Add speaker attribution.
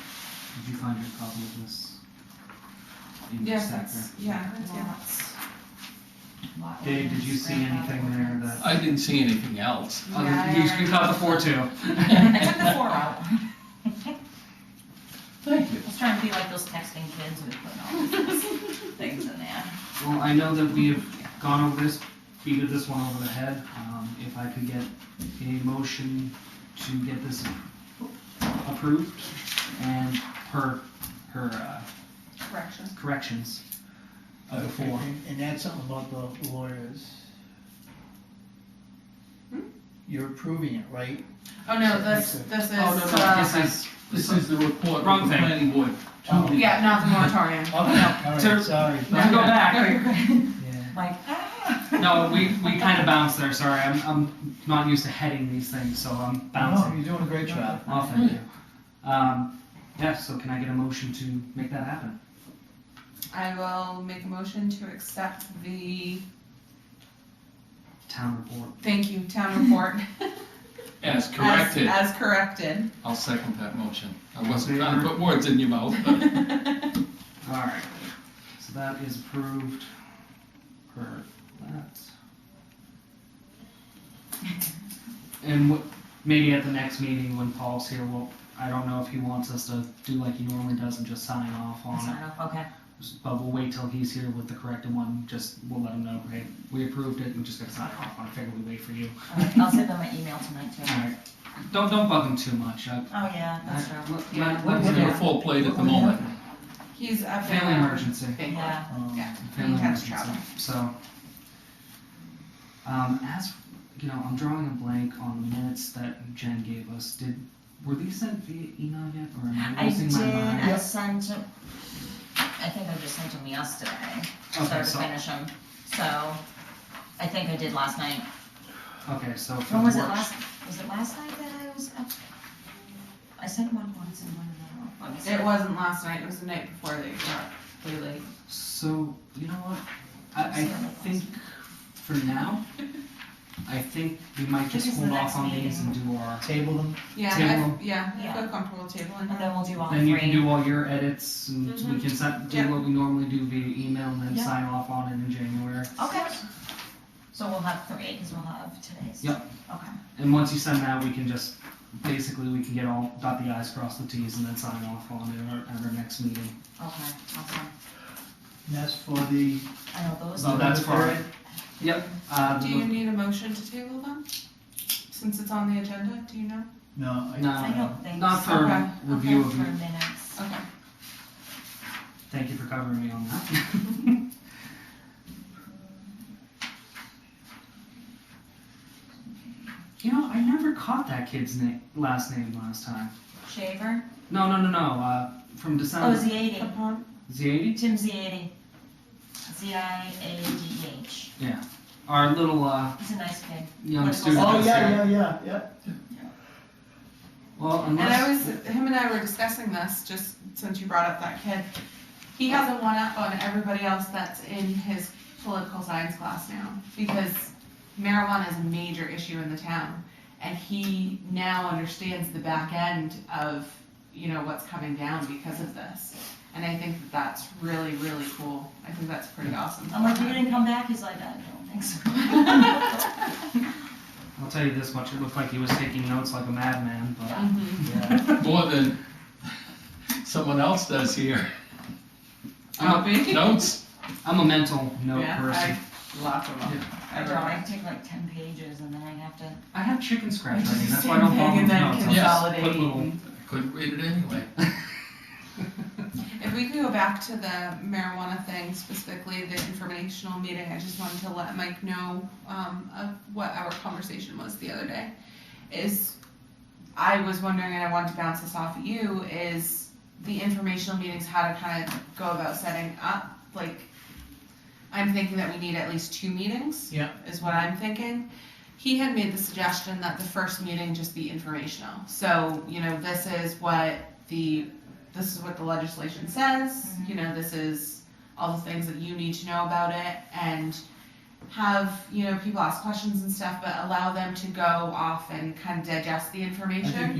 Speaker 1: Did you find a copy of this? in your
Speaker 2: Yes,
Speaker 1: stack
Speaker 2: that's,
Speaker 1: there?
Speaker 2: yeah,
Speaker 3: Yeah.
Speaker 2: lots. Lot
Speaker 1: Dave, did you
Speaker 2: lines,
Speaker 1: see
Speaker 2: grandfather
Speaker 1: anything there
Speaker 2: lines.
Speaker 1: that-
Speaker 4: I didn't see anything else.
Speaker 1: Other-
Speaker 2: Yeah.
Speaker 1: Oh, You you caught the four two.
Speaker 2: I took the four out.
Speaker 4: Thank you.
Speaker 3: I was trying to be like those texting kids who put all these things in there.
Speaker 1: Well, I know that we have gone over this, beated this one over the head. Um, if I could get a motion to get this approved and her, her, uh,
Speaker 2: Correction.
Speaker 1: corrections of the
Speaker 5: Okay,
Speaker 1: four.
Speaker 5: and- And that's something about the lawyers.
Speaker 2: Hmm?
Speaker 5: You're approving it, right?
Speaker 2: Oh, no,
Speaker 5: So
Speaker 2: this,
Speaker 5: it's a-
Speaker 2: this is,
Speaker 1: Oh, no, no, this
Speaker 2: uh,
Speaker 1: is,
Speaker 4: This is the report
Speaker 1: Wrong
Speaker 4: of the
Speaker 1: thing.
Speaker 4: planning board.
Speaker 5: Oh, okay,
Speaker 2: yeah, not the moratorium.
Speaker 5: all
Speaker 1: Sir.
Speaker 5: right, sorry.
Speaker 1: Let's go back.
Speaker 2: No, you're good.
Speaker 5: Yeah.
Speaker 3: Like, ah.
Speaker 1: no, we, we kind of bounced there, sorry. I'm, I'm not used to heading these things, so I'm
Speaker 5: No,
Speaker 1: bouncing.
Speaker 5: you're doing a great job.
Speaker 1: Oh, thank you. Um, yeah, so can I get a motion to make that happen?
Speaker 2: I will make a motion to accept the,
Speaker 1: Town report.
Speaker 2: thank you, town report.
Speaker 4: As
Speaker 2: as-
Speaker 4: corrected,
Speaker 2: As corrected.
Speaker 4: I'll second that motion. I wasn't trying to put words in your mouth,
Speaker 1: Oh,
Speaker 4: but
Speaker 1: Alright, so that is approved per that. And wh- maybe at the next meeting when Paul's here, well, I don't know if he wants us to do like he normally does and just sign off on it.
Speaker 3: Sign off, okay.
Speaker 1: But we'll wait till he's here with the corrected one, just, we'll let him know, hey, we approved it, we just gotta sign off on it, figure we wait for you.
Speaker 3: All right, I'll send them an email tonight too. Oh,
Speaker 1: Alright, don't, don't bug him too much, I,
Speaker 3: yeah,
Speaker 1: I,
Speaker 3: that's true.
Speaker 1: let-
Speaker 2: Yeah.
Speaker 1: let-
Speaker 4: we're
Speaker 1: let him
Speaker 4: in a
Speaker 1: do
Speaker 4: full plate at the moment.
Speaker 2: He's up
Speaker 1: it.
Speaker 2: there.
Speaker 1: Family emergency.
Speaker 2: Bangalore.
Speaker 3: Yeah,
Speaker 5: Um,
Speaker 2: Yeah.
Speaker 1: family
Speaker 2: He has
Speaker 1: emergency.
Speaker 2: travel.
Speaker 1: So, um, as you know, I'm drawing a blank on the minutes that Jen gave us. Did were these sent via email yet, or am I
Speaker 3: I
Speaker 1: losing
Speaker 3: did,
Speaker 1: my mind?
Speaker 3: I sent, 'em- I think I just sent them yesterday,
Speaker 1: Okay,
Speaker 3: started to
Speaker 1: so
Speaker 3: finish them, so, I think I did last night.
Speaker 1: okay, so for
Speaker 3: When was
Speaker 1: the
Speaker 3: it
Speaker 1: work-
Speaker 3: last, was it last night that I was up? I sent one once and one another. Let me see.
Speaker 2: It wasn't last night, it was the night before they were up really late.
Speaker 1: So you know what? I, I
Speaker 3: Sorry, what
Speaker 1: think for now, I think we might just
Speaker 3: This is
Speaker 1: hold
Speaker 3: the next
Speaker 1: off on these and do our.
Speaker 5: Table them,
Speaker 2: Yeah,
Speaker 1: Table.
Speaker 2: I, yeah, I feel
Speaker 3: Yeah.
Speaker 2: comfortable tabling
Speaker 3: And
Speaker 2: that.
Speaker 3: then we'll do all
Speaker 1: Then you can
Speaker 3: three.
Speaker 1: do all your edits, and we can set, do
Speaker 2: Yeah.
Speaker 1: what we normally do via email, and then
Speaker 3: Yeah.
Speaker 1: sign off on it in January.
Speaker 3: Okay. So we'll have three, because we'll have today's.
Speaker 1: Yep.
Speaker 3: Okay.
Speaker 1: And once you send that, we can just, basically, we can get all, dot the i's, cross the t's, and then sign off on it at our, at our next meeting.
Speaker 3: Okay, awesome.
Speaker 5: and that's for the.
Speaker 3: I know those.
Speaker 1: So that's fine. Yep, uh,
Speaker 2: Do you need a motion to table them? Since it's on the agenda, do you know?
Speaker 5: No, I.
Speaker 3: I
Speaker 1: no,
Speaker 3: don't think.
Speaker 1: uh, not
Speaker 3: so.
Speaker 1: for
Speaker 2: Okay,
Speaker 1: review
Speaker 3: Okay,
Speaker 1: of,
Speaker 3: for
Speaker 1: it.
Speaker 3: minutes.
Speaker 2: Okay.
Speaker 1: thank you for covering me on that. You know, I never caught that kid's name, last name last time.
Speaker 3: Shaver?
Speaker 1: No, no, no, no, uh, from
Speaker 3: Oh,
Speaker 1: December,
Speaker 3: Z80.
Speaker 2: Upon-
Speaker 1: Z80?
Speaker 3: Tim Z80. Z-I-A-D-H.
Speaker 1: Our little, uh,
Speaker 3: He's a nice kid.
Speaker 1: young
Speaker 3: Little-
Speaker 1: student.
Speaker 5: Oh,
Speaker 1: that's here.
Speaker 5: yeah, yeah, yeah, yeah.
Speaker 1: Well,
Speaker 2: And I was,
Speaker 1: unless,
Speaker 2: him and I were discussing this, just since you brought up that kid. He has a one up on everybody else that's in his political science class now, because marijuana is a major issue in the town. And he now understands the back end of, you know, what's coming down because of this. And I think that that's really, really cool. I think that's pretty awesome.
Speaker 3: I'm like, you didn't come back? He's like, I don't think so.
Speaker 1: I'll tell you this much, it looked like he was taking notes like a madman, but.
Speaker 2: Mhm.
Speaker 5: Yeah.
Speaker 4: more than someone else does here.
Speaker 1: I'm a,
Speaker 2: Copy?
Speaker 4: Notes,
Speaker 1: I'm a mental note
Speaker 2: Mm-hmm. Yeah,
Speaker 1: person.
Speaker 2: I locked him up.
Speaker 3: I
Speaker 2: I
Speaker 3: don't, I
Speaker 2: really-
Speaker 3: take like ten pages and then I have to.
Speaker 1: I have chicken scratch
Speaker 2: It's
Speaker 1: writing,
Speaker 2: the
Speaker 1: that's why I don't
Speaker 2: same thing,
Speaker 1: bother with
Speaker 2: and then
Speaker 1: notes. I'll just put little-
Speaker 2: consolidating.
Speaker 4: couldn't read it anyway.
Speaker 2: If we could go back to the marijuana thing, specifically the informational meeting, I just wanted to let Mike know, um, of what our conversation was the other day. Is, I was wondering, and I wanted to bounce this off of you, is the informational meetings, how to kind of go about setting up, like, I'm thinking that we need at least two meetings.
Speaker 5: Yeah.
Speaker 2: Is what I'm thinking. He had made the suggestion that the first meeting just be informational, so, you know, this is what the this is what the legislation says, you know, this is all the things that you need to know about it, and have, you know, people ask questions and stuff, but allow them to go off and kind of digest the information.